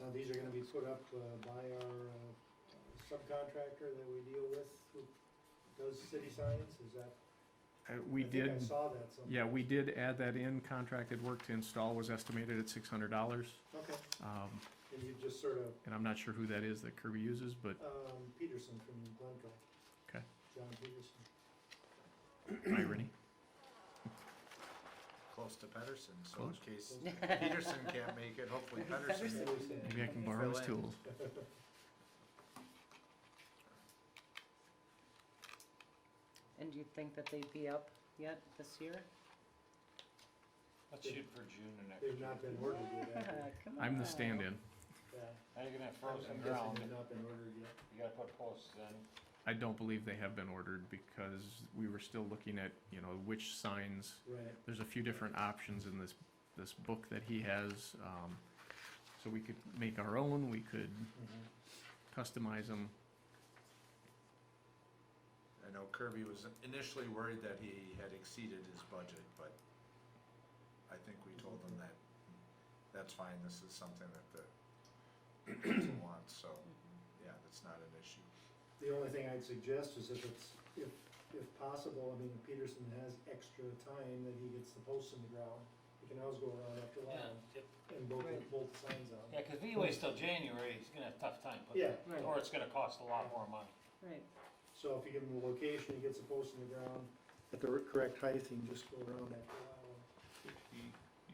Now, these are gonna be put up uh, by our uh, subcontractor that we deal with, who does city signs, is that? Uh, We I think I did, saw that somewhere. yeah, we did add that in. Contracted work to install was estimated at six hundred dollars. Okay, Um, and you just sort of, and I'm not sure who that is that Kirby uses, but um, Peterson from Glencoe. Okay. John Peterson. irony. Close to Pedersen, so in Close. case Peterson can't make it, hopefully Pedersen. What do you say? Maybe I can borrow his Fill in. tools. And do you think that they'd be up yet this year? Let's shoot for June and next They've year. not been ordered yet. Come I'm the on. stand-in. Yeah. Now you're gonna have I'm frozen guessing ground, they've not been ordered yet. you gotta put posts in. I don't believe they have been ordered because we were still looking at, you know, which signs. Right, There's a few different options in this, this book that he has. Um, so we could make our own, we could mhm. customize them. I know Kirby was initially worried that he had exceeded his budget, but I think we told him that, that's fine, this is something that the council wants, so, yeah, that's not an issue. The only thing I'd suggest is if it's, if, if possible, I mean, if Peterson has extra time that he gets the posts in the ground, he can always go around after a while and both, both signs Yeah, out. cause if he waits till January, he's gonna have a tough time putting Yeah. it, Right. or it's gonna cost a lot more money. Right, So if you give him the location, he gets the post in the ground at the correct height, he can just go around after a while. Sixty,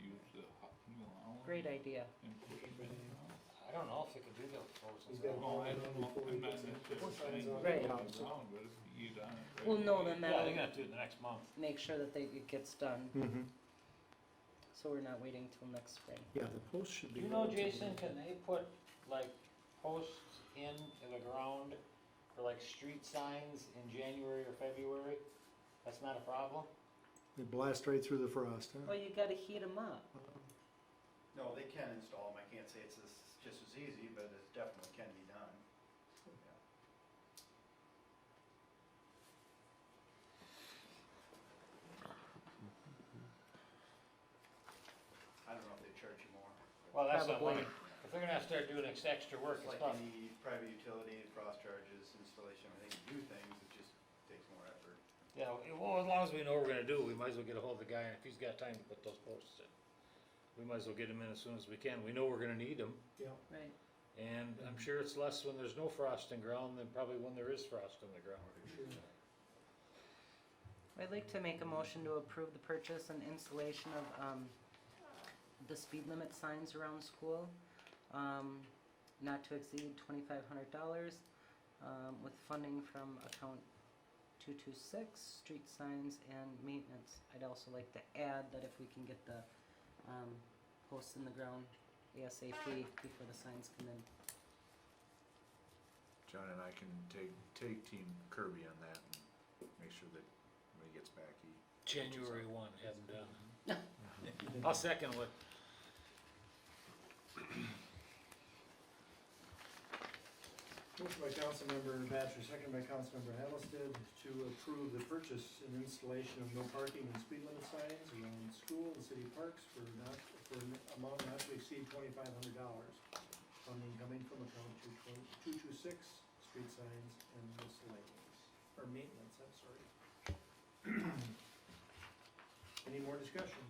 use the hot meal hour. great idea. And push it in and out. I don't know if they could do those frozen. He's got Oh, I ground. Well, don't know, before we I'm not get to- necessarily signs saying on the put it house. down, but if you get on it right Well, no, away, then Yeah, they're that'll gonna do it the next month. make sure that they, it gets done, so we're not waiting till next spring. Mm-hmm. Yeah, the post should Do you know, Jason, can they put like posts in the ground for like street signs in January or February? That's not a problem? They blast right through the frost, Well, you gotta heat them up. No, they can install them, I can't say it's as- just as easy, but it definitely can be done. I don't know if they charge you more. Well, that's not Probably. like, if they're gonna have to start doing ex- extra work, It's it's like not, any private utility, frost charges, installation, I think, do things, it just takes more effort. yeah, well, as long as we know what we're gonna do, we might as well get a hold of the guy, and if he's got time to put those posts in. We might as well get him in as soon as we can, we know we're gonna need them, Yeah, Right. and I'm sure it's less when there's no frost in ground than probably when there is frost in the ground. sure. I'd like to make a motion to approve the purchase and installation of, um, the speed limit signs around school, um, not to exceed twenty-five hundred dollars, um, with funding from account two-two-six, street signs and maintenance. I'd also like to add that if we can get the, um, posts in the ground ASAP before the signs come in. John and I can take, take team Kirby on that and make sure that when he gets back, he January one, hadn't done. I'll second what Motion by Councilmember Batchor, second by Councilmember Hattlested, to approve the purchase and installation of no parking and speed limit signs around school and city parks for not, for an amount not to exceed twenty-five hundred dollars. Funding coming from account two twenty, two two six, street signs and miscellaneous, or maintenance, I'm sorry. Any more discussion?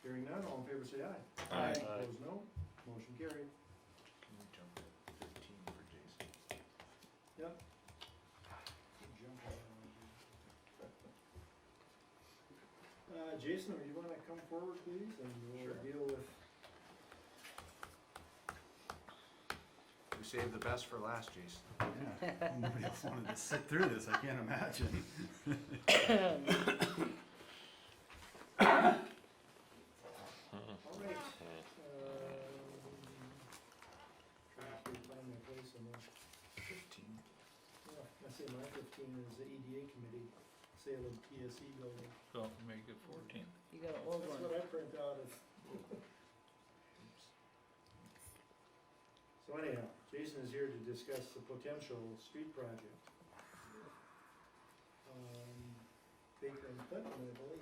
Hearing none, all in favor say aye. Aye. Aye. Opposed, no. Motion carried. can we jump to fifteen for Jason. Yep. Uh, Jason, would you wanna come forward, please, and we'll Sure. deal with, We saved the best for last, Jason. Yeah, nobody else wanted to sit through this, I can't imagine. all right. uh, um, Trying to find my place on this. Fifteen. Yeah, I say my fifteen is the EDA committee, sale of PSE E building. So make it fourteen. You got an old That's what one. I print out is. So anyhow, Jason is here to discuss the potential street project. Um, Baker and Clinton, I believe.